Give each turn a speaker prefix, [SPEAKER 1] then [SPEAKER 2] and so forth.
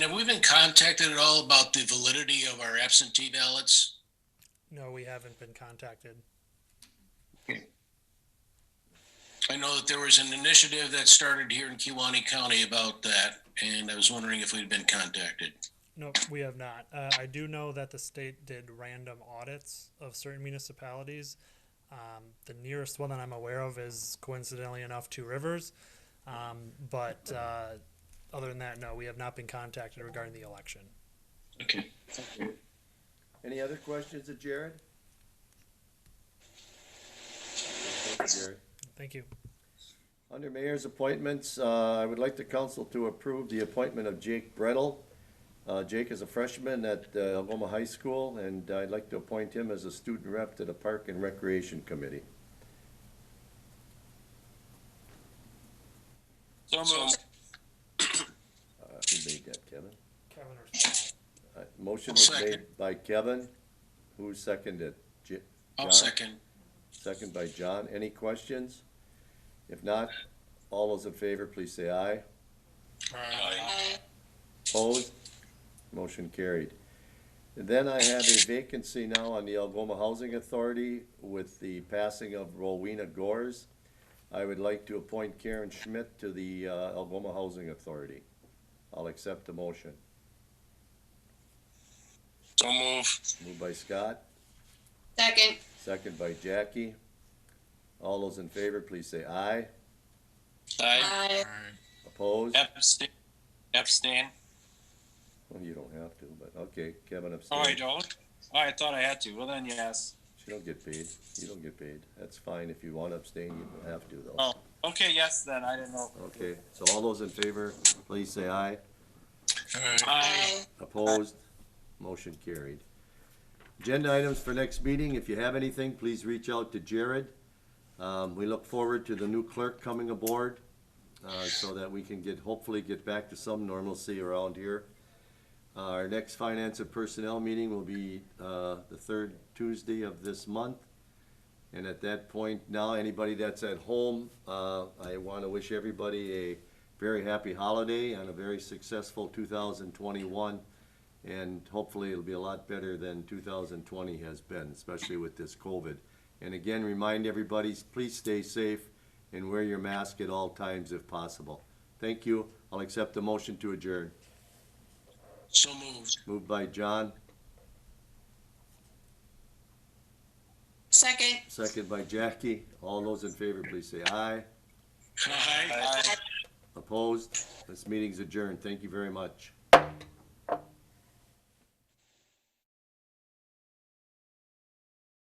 [SPEAKER 1] Have we been contacted at all about the validity of our absentee ballots?
[SPEAKER 2] No, we haven't been contacted.
[SPEAKER 1] I know that there was an initiative that started here in Kiwanee County about that, and I was wondering if we'd been contacted.
[SPEAKER 2] No, we have not. Uh, I do know that the state did random audits of certain municipalities. Um, the nearest one that I'm aware of is coincidentally enough Two Rivers. Um, but uh, other than that, no, we have not been contacted regarding the election.
[SPEAKER 1] Okay.
[SPEAKER 3] Any other questions of Jared? Thank you, Jared.
[SPEAKER 2] Thank you.
[SPEAKER 3] Under mayor's appointments, uh, I would like the council to approve the appointment of Jake Brettel. Uh, Jake is a freshman at uh, Algoma High School, and I'd like to appoint him as a student rep to the Park and Recreation Committee.
[SPEAKER 1] So moved.
[SPEAKER 3] Uh, Who made that, Kevin?
[SPEAKER 2] Kevin or
[SPEAKER 3] Uh, Motion was
[SPEAKER 1] Second.
[SPEAKER 3] made by Kevin. Who seconded? J-
[SPEAKER 1] I'll
[SPEAKER 3] John?
[SPEAKER 1] second.
[SPEAKER 3] Second by John. Any questions? If not, all those in favor, please say aye. Opposed? Motion carried. And Then I have a vacancy now on the Algoma Housing Authority with the passing of Rowena Gores. I would like to appoint Karen Schmidt to the uh, Algoma Housing Authority. I'll accept the motion.
[SPEAKER 1] So move.
[SPEAKER 3] Moved by Scott,
[SPEAKER 4] Second.
[SPEAKER 3] second by Jackie. All those in favor, please say aye.
[SPEAKER 4] Aye.
[SPEAKER 3] Opposed?
[SPEAKER 1] Epstein. Epstein.
[SPEAKER 3] Well, you don't have to, but okay, Kevin
[SPEAKER 5] Oh, I
[SPEAKER 3] abstained.
[SPEAKER 5] don't? Oh, I thought I had to. Well, then, yes.
[SPEAKER 3] She don't get paid. You don't get paid. That's fine. If you want to abstain, you don't have to though.
[SPEAKER 5] Oh, okay, yes, then. I didn't know.
[SPEAKER 3] Okay, so all those in favor, please say aye.
[SPEAKER 5] I,
[SPEAKER 4] Aye.
[SPEAKER 3] Opposed? Motion carried. Agenda items for next meeting. If you have anything, please reach out to Jared. Um, we look forward to the new clerk coming aboard, uh, so that we can get, hopefully get back to some normalcy around here. Uh, Our next finance and personnel meeting will be, uh, the third Tuesday of this month. And at that point, now, anybody that's at home, uh, I wanna wish everybody a very happy holiday and a very successful two thousand twenty-one. And hopefully it'll be a lot better than two thousand twenty has been, especially with this COVID. And again, remind everybody, please stay safe and wear your mask at all times if possible. Thank you. I'll accept the motion to adjourn.
[SPEAKER 1] So moved.
[SPEAKER 3] Moved by John,
[SPEAKER 4] Second.
[SPEAKER 3] second by Jackie. All those in favor, please say aye.
[SPEAKER 1] Aye.
[SPEAKER 5] I,
[SPEAKER 3] Opposed? This meeting's adjourned. Thank you very much.